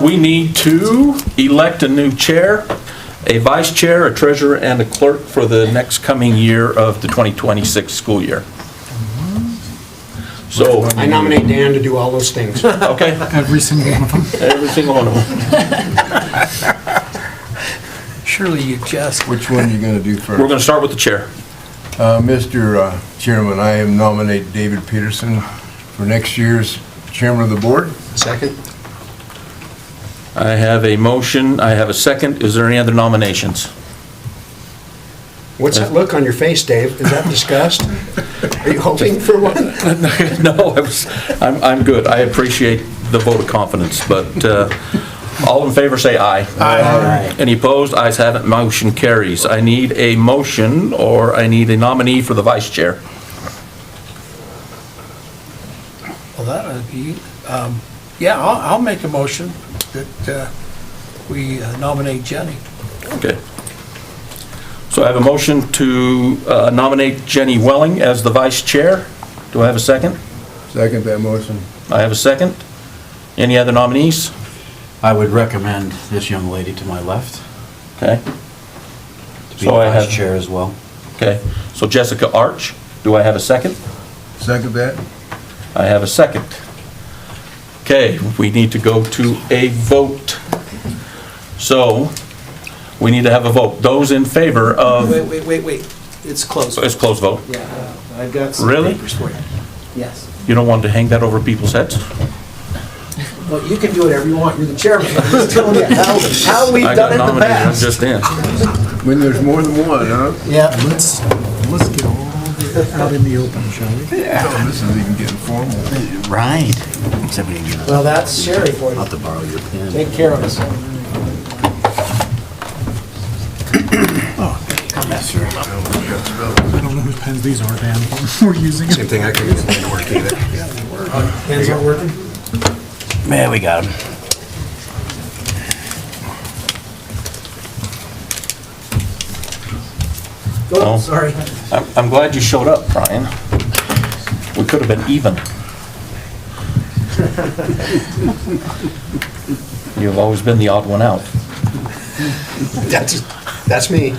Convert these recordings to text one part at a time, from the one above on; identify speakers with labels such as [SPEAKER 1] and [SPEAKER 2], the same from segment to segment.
[SPEAKER 1] We need to elect a new chair, a vice chair, a treasurer, and a clerk for the next coming year of the 2026 school year. So,
[SPEAKER 2] I nominate Dan to do all those things.
[SPEAKER 1] okay,
[SPEAKER 3] Every single one of them.
[SPEAKER 1] every single one of them.
[SPEAKER 3] Surely you jest.
[SPEAKER 4] Which one are you going to do
[SPEAKER 1] We're going
[SPEAKER 4] first?
[SPEAKER 1] to start with the chair.
[SPEAKER 4] Uh, Mr. uh, Chairman, I am nominate David Peterson for next year's chairman of the board.
[SPEAKER 2] Second?
[SPEAKER 1] I have a motion, I have a second. Is there any other nominations?
[SPEAKER 2] What's that look on your face, Dave? Is that disgust? Are you hoping for one?
[SPEAKER 1] No, I was- I'm, I'm good. I appreciate the vote of confidence, but uh, all in favor, say aye. Aye. Any opposed? Ayes have it, motion carries. I need a motion, or I need a nominee for the vice chair.
[SPEAKER 3] Well, that would be, um, yeah, I'll, I'll make a motion that uh, we uh, nominate Jenny.
[SPEAKER 1] Okay. So I have a motion to uh, nominate Jenny Welling as the vice chair. Do I have a second?
[SPEAKER 4] Second that motion.
[SPEAKER 1] I have a second. Any other nominees?
[SPEAKER 5] I would recommend this young lady to my left
[SPEAKER 1] Okay,
[SPEAKER 5] to be
[SPEAKER 1] So I
[SPEAKER 5] vice
[SPEAKER 1] have-
[SPEAKER 5] chair as well.
[SPEAKER 1] okay. So Jessica Arch, do I have a second?
[SPEAKER 4] Second that?
[SPEAKER 1] I have a second. Okay, we need to go to a vote. So, we need to have a vote. Those in favor
[SPEAKER 6] Wait,
[SPEAKER 1] of,
[SPEAKER 6] wait, wait, wait, it's closed.
[SPEAKER 1] it's closed vote.
[SPEAKER 6] Yeah, uh, I've got some
[SPEAKER 1] Really?
[SPEAKER 6] papers for you. Yes.
[SPEAKER 1] You don't want to hang that over people's heads?
[SPEAKER 6] Well, you can do whatever you want, you're the chairman, I'm just telling you how, how we've
[SPEAKER 1] I
[SPEAKER 6] done
[SPEAKER 1] got
[SPEAKER 6] it in the
[SPEAKER 1] nominated, I'm
[SPEAKER 6] past.
[SPEAKER 1] just in.
[SPEAKER 4] When there's more than one, huh?
[SPEAKER 6] Yeah,
[SPEAKER 3] Let's, let's get all out in the open, shall we?
[SPEAKER 4] Oh, This is even getting formal.
[SPEAKER 5] Right. Somebody give us,
[SPEAKER 6] well, that's Sherry for
[SPEAKER 5] I'll
[SPEAKER 6] you,
[SPEAKER 5] have to borrow your pen.
[SPEAKER 6] take care of us.
[SPEAKER 1] Oh.
[SPEAKER 5] Yes, sir.
[SPEAKER 3] I don't know whose pens these are, Dan. We're using them.
[SPEAKER 2] thing, I couldn't get it to work either.
[SPEAKER 6] Hands aren't working?
[SPEAKER 5] There, we got him.
[SPEAKER 1] Oh.
[SPEAKER 6] Oh, sorry.
[SPEAKER 1] I'm, I'm glad you showed up, Brian. We could have been even. You've always been the odd one out.
[SPEAKER 2] That's, that's me.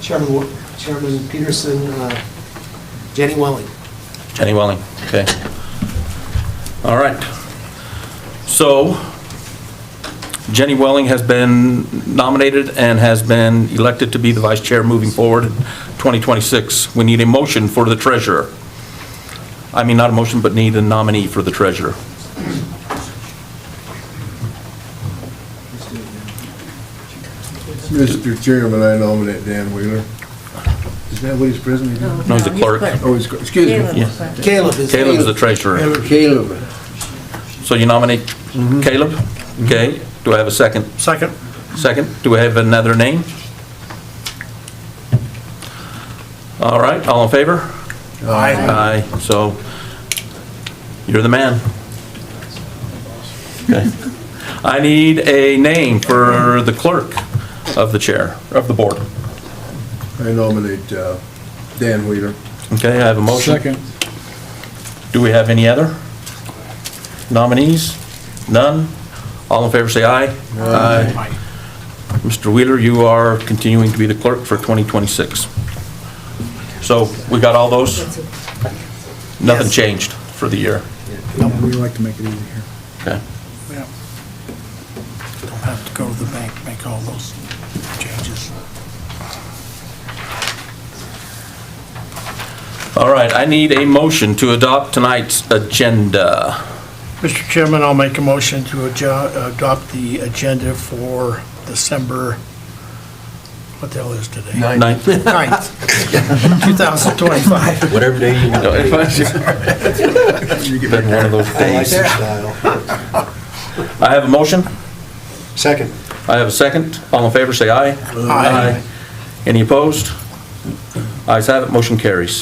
[SPEAKER 6] Chairman, Wa- Chairman Peterson, uh, Jenny Welling.
[SPEAKER 1] Jenny Welling, okay. All right. So Jenny Welling has been nominated and has been elected to be the vice chair moving forward in 2026. We need a motion for the treasurer. I mean, not a motion, but need a nominee for the treasurer.
[SPEAKER 4] Mr. Chairman, I nominate Dan Wheeler. Is that what he's presently doing?
[SPEAKER 1] No, he's a clerk.
[SPEAKER 4] Oh, he's, excuse
[SPEAKER 7] Caleb
[SPEAKER 4] me.
[SPEAKER 7] was like-
[SPEAKER 6] Caleb is.
[SPEAKER 1] Caleb is the treasurer.
[SPEAKER 4] Caleb.
[SPEAKER 1] So you nominate Caleb? Okay, do I have a second?
[SPEAKER 3] Second.
[SPEAKER 1] Second, do we have another name? All right, all in favor? Aye. Aye, so you're the man. Okay. I need a name for the clerk of the chair, of the board.
[SPEAKER 4] I nominate uh, Dan Wheeler.
[SPEAKER 1] Okay, I have a motion. Do we have any other nominees? None? All in favor, say aye. Aye. Mr. Wheeler, you are continuing to be the clerk for 2026. So we got all those? Nothing changed for the year?
[SPEAKER 3] We like to make it easy here.
[SPEAKER 1] Okay.
[SPEAKER 3] Yeah. Don't have to go to the bank, make all those changes.
[SPEAKER 1] All right, I need a motion to adopt tonight's agenda.
[SPEAKER 3] Mr. Chairman, I'll make a motion to adjo- adopt the agenda for December, what the hell is today?
[SPEAKER 1] Ninth.
[SPEAKER 3] Ninth, 2025.
[SPEAKER 5] Whatever day you want.
[SPEAKER 1] Been one of those
[SPEAKER 2] I like
[SPEAKER 1] days.
[SPEAKER 2] your style.
[SPEAKER 1] I have a motion?
[SPEAKER 2] Second.
[SPEAKER 1] I have a second. All in favor, say aye. Aye. Any opposed? Ayes have it, motion carries.